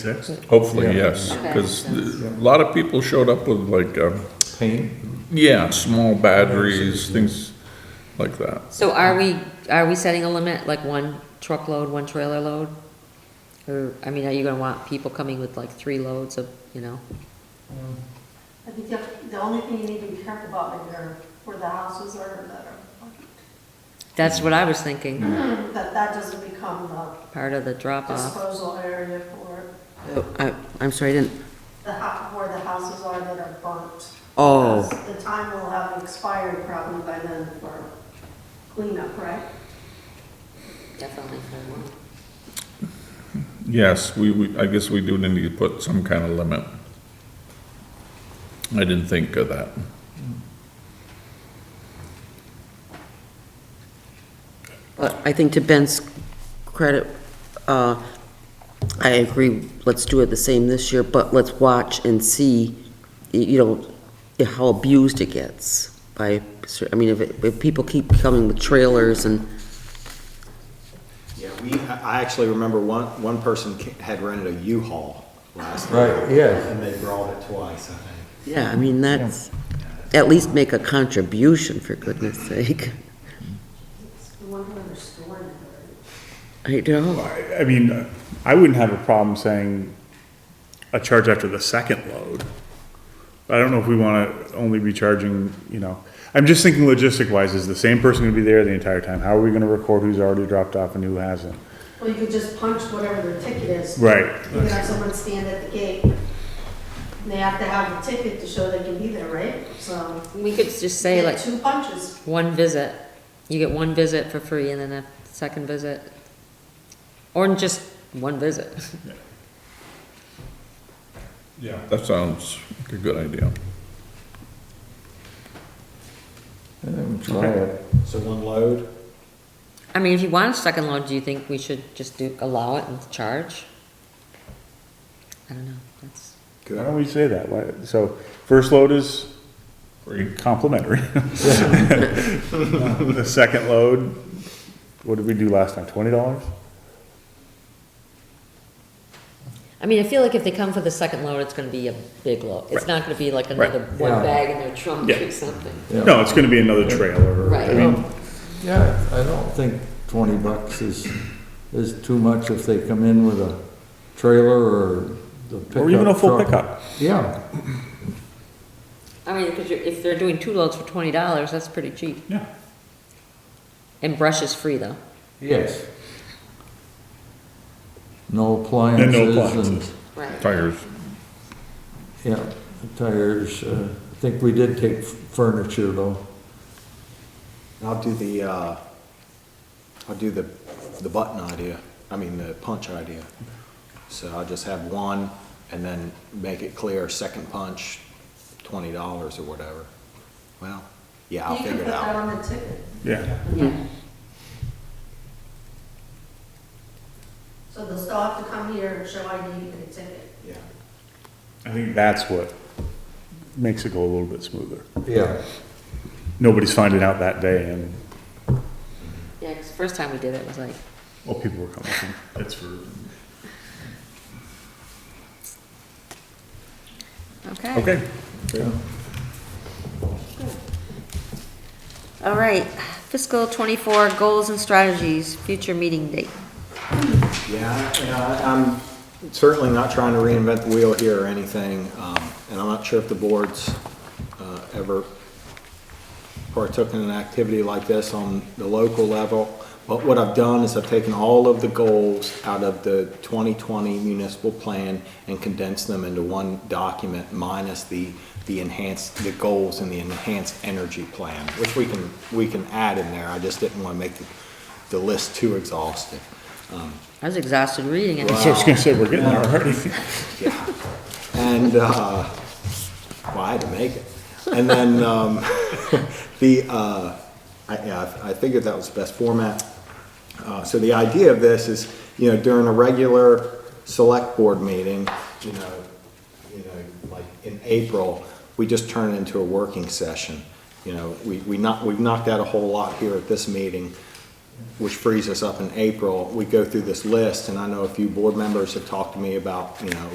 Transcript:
Six? Hopefully, yes, Okay. because a lot of people showed up with like, um, Paint? yeah, small batteries, things like that. So are we, are we setting a limit, like one truckload, one trailer load? Or, I mean, are you gonna want people coming with like three loads of, you know? I think the, the only thing you need to be careful about maybe are where the houses are that are, That's what I was thinking, that that doesn't become the part of the drop off. disposal area for Oh, I, I'm sorry, I didn't, the hou- where the houses are that are burnt. oh, Because The time will have expired probably by then for cleanup, right? Definitely for one. Yes, we, we, I guess we do need to put some kind of limit. I didn't think of that. but I think to Ben's credit, uh, I agree, let's do it the same this year, but let's watch and see, y- you know, how abused it gets by, cer- I mean, if, it- if people keep coming with trailers and, Yeah, we, I I actually remember one, one person ca- had rented a U-Haul last Right, year. yeah. And they brought it twice, I think. yeah, I mean, that's, at least make a contribution, for goodness sake. I wonder where they're storing it. I know, I, I mean, I wouldn't have a problem saying a charge after the second load. But I don't know if we wanna only be charging, you know, I'm just thinking logistic wise, is the same person gonna be there the entire time? How are we gonna record who's already dropped off and who hasn't? Well, you could just punch whatever their ticket is. Right. You could have someone stand at the gate. And they have to have a ticket to show they can be there, right? So, We could just say yeah, like, two punches. one visit, you get one visit for free and then a second visit. Or just one visit. Yeah. That sounds like a good idea. Try it. So one load, I mean, if you want a second load, do you think we should just do, allow it and charge? I don't know, that's, Why good. don't we say that? Why, so first load is Free. complimentary. The second load, what did we do last time? Twenty dollars? I mean, I feel like if they come for the second load, it's gonna be a big load. It's not gonna be like another one bag in their trunk Yeah. or something. No, it's gonna be another trailer. Right. I mean, Oh. Yeah, I don't think twenty bucks is, is too much if they come in with a trailer or the pickup Or even a full truck. pickup. Yeah, I mean, because you're, if they're doing two loads for twenty dollars, that's pretty cheap. Yeah. And brush is free though. yes. No And no appliances and, appliances. Right. Tires, yeah, tires, uh, I think we did take furniture though. And I'll do the, uh, I'll do the, the button idea, I mean, the punch idea. So I'll just have one and then make it clear, second punch, twenty dollars or whatever. Well, yeah, I'll You can figure put it that out. on the ticket. Yeah. So they'll still have to come here and show ID and a ticket. Yeah. I think that's what makes it go a little bit smoother. Yeah, Nobody's finding out that day and, Yeah, because first time we did it was like, well, people were coming. That's for. okay. Okay. All right, fiscal twenty-four goals and strategies, future meeting date. Yeah, and I- I'm certainly not trying to reinvent the wheel here or anything, um, and I'm not sure if the board's uh, ever partook in an activity like this on the local level, but what I've done is I've taken all of the goals out of the 2020 municipal plan and condensed them into one document minus the, the enhanced, the goals in the enhanced energy plan, which we can, we can add in there. I just didn't want to make the, the list too exhaustive. Um, I was exhausted reading it. So I was gonna say, we're getting there already. yeah. And, uh, well, I had to make it. And then, um, the, uh, I, yeah, I I figured that was the best format. Uh, so the idea of this is, you know, during a regular select board meeting, you know, you know, like in April, we just turn it into a working session. You know, we, we not, we've knocked out a whole lot here at this meeting. which frees us up in April, we go through this list, and I know a few board members have talked to me about, you know,